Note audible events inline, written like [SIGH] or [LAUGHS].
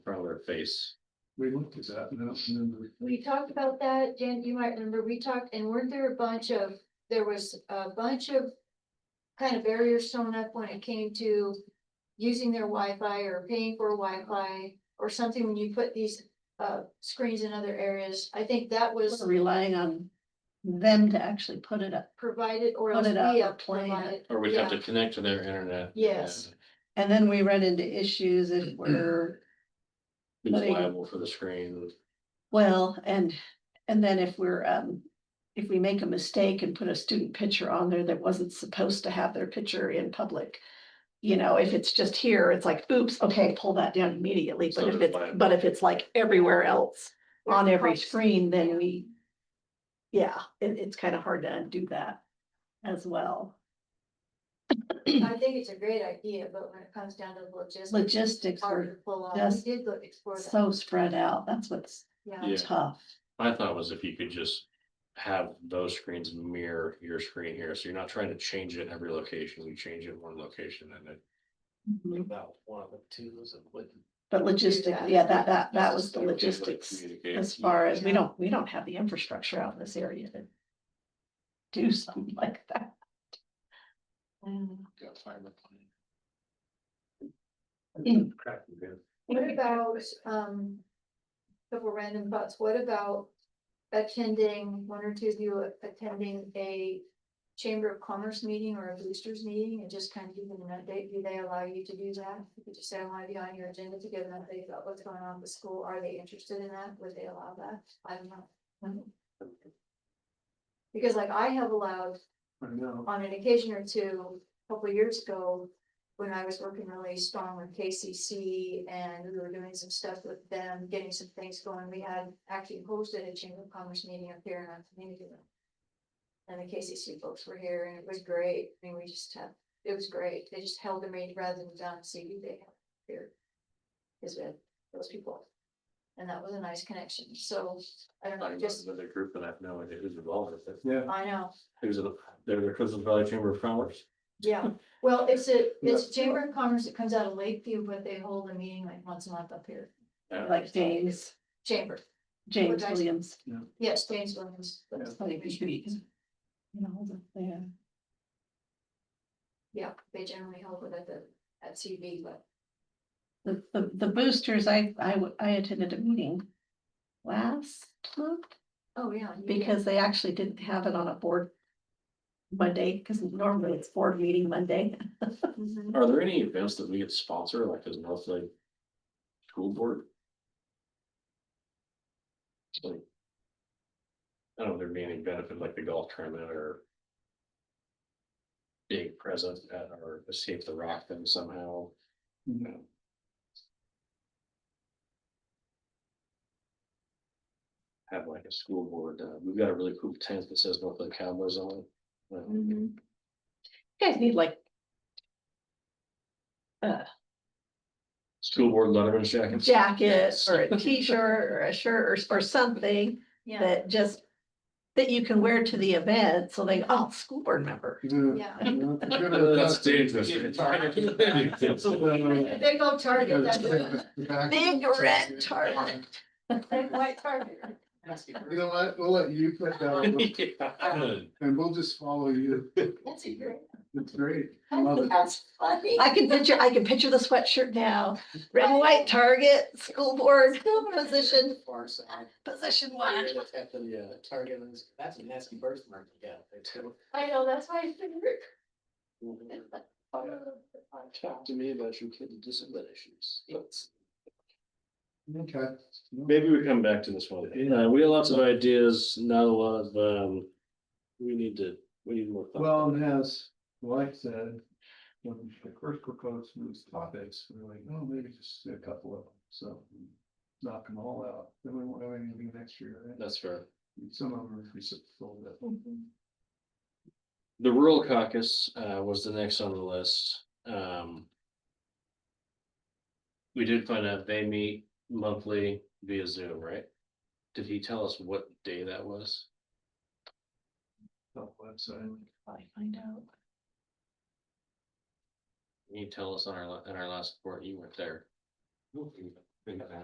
face. We looked at that, and I don't remember. We talked about that, Jen, you might remember, we talked, and weren't there a bunch of, there was a bunch of. Kind of barriers thrown up when it came to using their Wi-Fi or paying for Wi-Fi or something when you put these. Uh, screens in other areas, I think that was We're Relying on them to actually put it up. provided or else Put it we up or have plan it. provided. Or we'd have to connect to their internet. Yes. And then we run into [CLEARS THROAT] issues if we're, and Be Letting- liable for the screen. well, and, and then if we're, um. If we make a mistake and put a student picture on there that wasn't supposed to have their picture in public. You know, if it's just here, it's like, oops, okay, pull that down immediately, So but if there's it's, like- but if it's like everywhere else or on every cost- screen, then we. Yeah, it, it's kind of hard to undo that as well. I think it's a great idea, but when it comes down to the logistics. it's Logistics Hard are to pull off, just we did look, explore that, so spread out, that's what's yeah. Yeah. tough. My thought was if you could just have those screens mirror your screen here, so you're not trying to change it in every location, you change it in one location and it. Mhm. About one of the two is it would. But Mm-hmm. that. logistic, yeah, that, that, that was the It would be able to logistics communicate. as far as, we Yeah. don't, we don't have the infrastructure out in this area to do something [LAUGHS] like that. Mm. Got fiber plan. Mm. Crap, we did. What about, um, couple random thoughts, what about attending, one or two of you attending a Chamber of Commerce meeting or a boosters meeting and just kind of give them an update, do they allow you to do that? You could just say, "Oh, I want to be on your agenda to give them an update about what's going on with school, are they interested in that, would they allow that? I don't know. Because like I have allowed I know. on an occasion or two, a couple of years ago, when I was working really strong with KCC and we were doing some stuff with them, getting some things going, we had actually hosted a Chamber of Commerce meeting up here in our community room. And the KCC folks were here and it was great. I mean, we just had, it was great. They just held the meeting rather than down see who they had here. Is with those people. And that was a nice connection. So I don't know, Talking about just, Another group and I have no idea who's involved with it. Yeah, I know. It was, a- they're the Crystal Valley Chamber of Commerce. Yeah, well, it's a, it's a Chamber of Commerce that comes out of Lakeview, but they hold a meeting like once a month up here. Yeah. Like James, Chamber, James Well, guys- Williams. yes, James Williams. that's funny, we should be- You know, hold on, yeah. Yeah, they generally hold it at the, at CB, but The, the, the boosters, I, I, w- I attended a meeting last month. oh, yeah. you did. because they actually didn't have it on a board Monday, because normally it's board meeting Monday. Mhm. Are there any events that we could sponsor, like as North Lake School Board? Like, I don't know, if there'd be any benefit like the golf tournament or being present at or escape the rock then somehow. no. Have like a school board, uh, we've got a really cool tent that says North Lake Cowboys on it. Uh, Well, Mhm. You Guys need like School board letterman's [LAUGHS] jackets. [LAUGHS] jacket or a t-shirt or a shirt or, s- or something Yeah, that just that you can wear to the event, so they, oh, school board member. Yeah. yeah. No, it's good. That's dangerous. Uh, They go Target, that's it. Big red target. Big white Target. You know what, we'll let you put that on, [LAUGHS] and we'll just follow you, That's a great, it's great, I love it. that's funny. I can picture, I can picture the sweatshirt now, red and white target, school board, position, far side. position one. That's at the uh, Target, and it's- that's a nasty birthmark you got there too. I know, that's my favorite. Talk to me about your kids' discipline issues. Okay. Maybe we come back to this one. Uh, we had lots of ideas, not a lot of, um, we need to, we need more. thought. Well, and as Mike said, when the first proposed these topics, we were like, oh, maybe just a couple of them, so. Knock them all out, then we won't have anything next year, right? That's fair. some of them are reciprocal, but. The rural caucus, uh, was the next on the list. Um. We did find out they meet monthly via Zoom, right? Did he tell us what day that was? Top website. Probably find out. Can you tell us on our, la- in our last report, you weren't there.